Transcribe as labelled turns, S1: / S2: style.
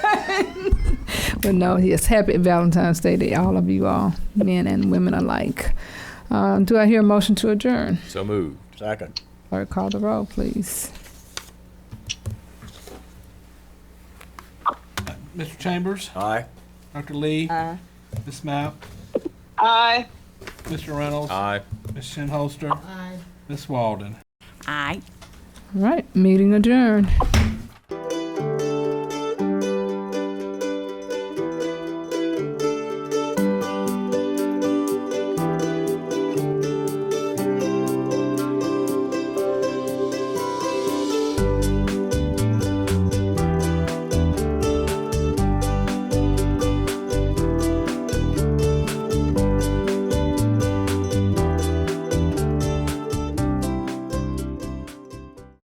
S1: but no, yes, happy Valentine's Day to all of you all, men and women alike. Um, do I hear a motion to adjourn?
S2: So moved.
S3: Second.
S1: Clerk, call the roll, please.
S4: Mr. Chambers,
S3: Aye.
S4: Dr. Lee,
S5: Aye.
S4: Ms. Map,
S5: Aye.
S4: Mr. Reynolds,
S2: Aye.
S4: Ms. Shinholster,
S5: Aye.
S4: Ms. Walden.
S5: Aye.
S1: All right, meeting adjourned.